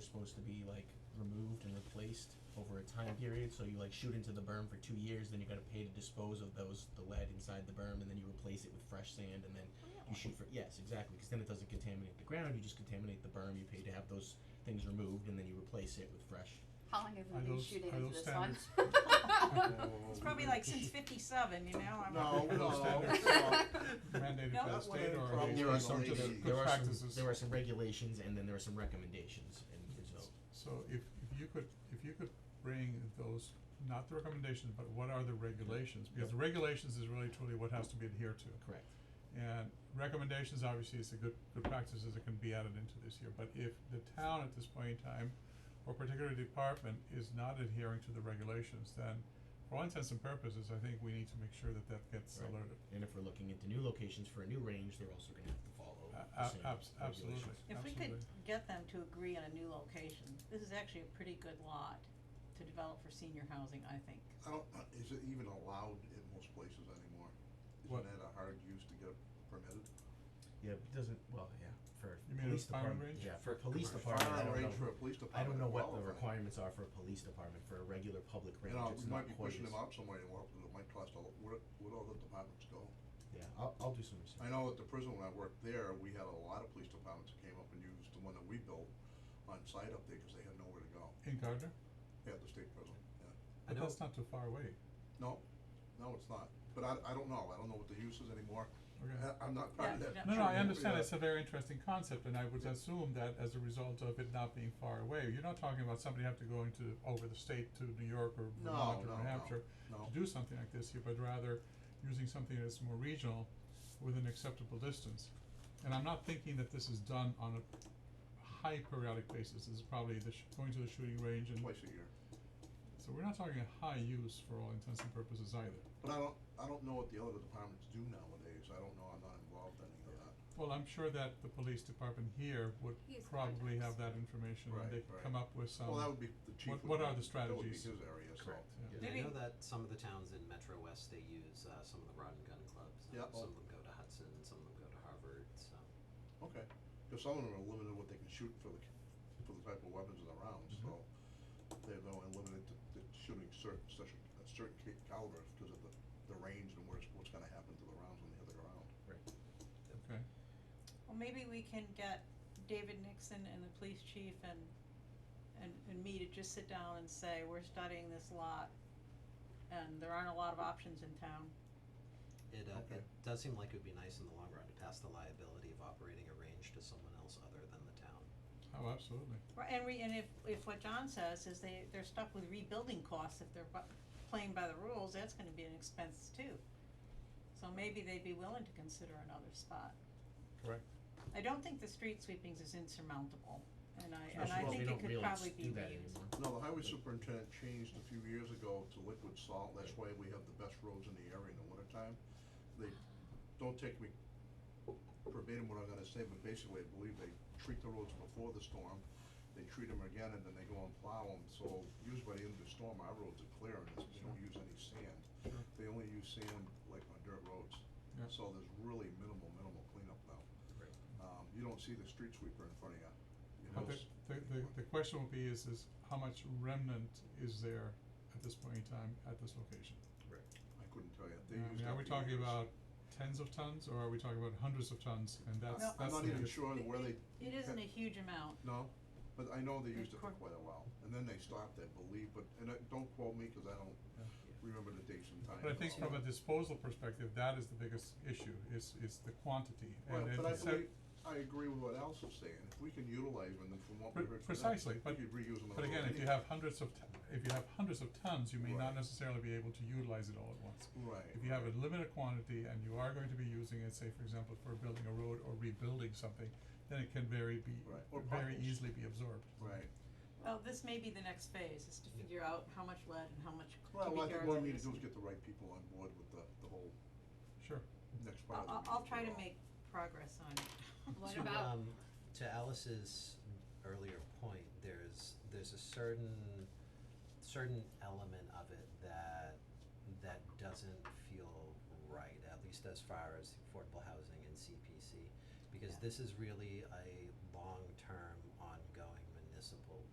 supposed to be like removed and replaced over a time period, so you like shoot into the berm for two years, then you gotta pay to dispose of those, the lead inside the berm, and then you replace it with fresh sand, and then you shoot for, yes, exactly, cause then it doesn't contaminate the ground, you just contaminate the berm, you pay to have those things removed, and then you replace it with fresh. How long have Are we been those- shooting are into those this one? It's probably like since fifty-seven, you know, I'm. No, "Oh." no. Mandated by the Not state one of the or are problems these There are some, just Regulations. there good are some, practices? there are some regulations, and then there are some recommendations, and so, So if, if you could, if you could bring those, not the recommendations, but what are the regulations? Because the regulations is really truly what has to be adhered to. correct, And recommendations, obviously, is a good, good practices that can be added into this here, but if the town at this point in time, or particular department is not adhering to the regulations, then for all intents and purposes, I think we need to make sure that that gets Right. alerted. and if we're looking into new locations for a new range, they're also gonna have to follow A- the a- same abs- absolutely, regulations. If we could absolutely. get them to agree on a new location, this is actually a pretty good lot to develop for senior housing, I think. I don't, uh, is it even allowed in most places anymore? What? Isn't that a hard use to get permitted? Yeah, but it doesn't, well, yeah, for You mean police a firing department, range? yeah, for For police commercial. department, I Firing don't range for know, a I police department. don't know what the qualifies. requirements are for a police department, for a regular public Oh. You range, know, it's we not might be quite pushing as- them out somewhere anymore, because it might cost a lot, where, where all the departments go. yeah, I'll, I'll do some research. I know at the prison when I worked there, we had a lot of police departments that came up and used the one that we built on site up there, cause they had nowhere to go, In Gardner, Yeah, at the state prison, yeah. but I know, that's not too far away, No, no, it's not, but I, I don't know, I don't know what the use is anymore, okay? I, I'm not part of Yeah, that. No, no, I Uh, Yeah. understand, it's a very interesting concept, and I would assume that as a result of it not being far away, you're not talking about somebody have to go into, over the state to New York or No, Vermont no, or New no. Hampshire Mm-hmm. No, to do something like this here, but rather using something that's more regional with an acceptable distance. And I'm not thinking that this is done on a high periodic basis, this is probably the sh- going to the shooting range and, twice a year. so we're not talking a high use for all intents and purposes either. But I don't, I don't know what the other departments do nowadays, I don't know, I'm not involved in any of that. Well, I'm sure that the police department here would He has probably have contacts. that information Right, and they could right. come up with some. Well, that would be, the chief Um, What- what would be- are the strategies? That would be his area, so. Correct. Yeah. I Did know he- that some of the towns in Metro West, they use, uh, some of the rod and gun clubs, Yeah, and oh. some of them go to Hudson, and some of them go to Harvard, so. Okay, cause some of them are limited what they can shoot for the, c- for the type of weapons in the rounds, Mm-hmm. Mhm. so. They're though limited to, to shooting certain, such a, a certain ca- caliber, cause of the, the range and where's, what's gonna happen to the rounds when they hit the ground. Okay. Well, maybe we can get David Nixon and the police chief and, and, and me to just sit down and say, we're studying this lot. And there aren't a lot of options in town. It, uh, Okay. it does seem like it would be nice in the long run to pass the liability of operating a range to someone else other than the town. Oh, absolutely. Right, and we, and if, if what John says is they, they're stuck with rebuilding costs if they're bu- playing by the rules, that's gonna be an expense too. So maybe they'd be willing to consider another spot. Correct. I don't think the street sweepings is insurmountable, and I, and Especially I if think it could probably be They don't really do that reused. anymore. No, the highway superintendent changed a few years ago to liquid salt, that's why we have the best roads in the area in the wintertime. They, don't take me verbatim what I'm gonna say, but basically, I believe they treat the roads before the storm, they treat them again, and then they go and plow them, so usually by the end of the storm, our roads are clear, and it's- they don't use any sand. Sure. They only use sand like on dirt roads, Yeah. so there's really minimal, minimal cleanup now. Right. Um, you don't see the street sweeper in front of you, you know, But the, s- the, the, the question will be is, is how much remnant is there at this point in time at this location? I couldn't tell you, I they used mean, are up we the talking acres. about tens of tons or are we talking about hundreds of tons? And that's, No, that's. I'm not the even biggest- sure where they, It isn't a huge amount, no, but I know they Good used it for point. quite a while, and then they stopped, I believe, but, and I, don't quote me, cause I don't Yeah. remember the dates and times. But I think and all from a that. disposal perspective, that is the biggest issue, is, is the quantity. Well, And but I it's set- believe, I agree with what Al's was saying, if we can utilize them, then from what we Pre- heard from them, precisely, we but- could reuse them. on But the again, if road you anyway. have hundreds of, ton- if you have hundreds of tons, you may Right. not necessarily be able to utilize it all at once. Right. If you have a limited quantity and you are going to be using it, say for example, for building a road or rebuilding something, then it can very be, Right, or very potholes. easily be absorbed. Right, well, this may be the next phase, is to figure out how much lead and how much well, cubic I think yards what of we need this. to do is get the right people on board with the, the whole Sure. next I'll, part of the I'll, I'll meeting try to overall. make progress on it. What to, about- um, to Alice's earlier point, there's there's a certain certain element of it that that doesn't feel right, at least as far as affordable housing and CPC, because Yeah. this is really a long term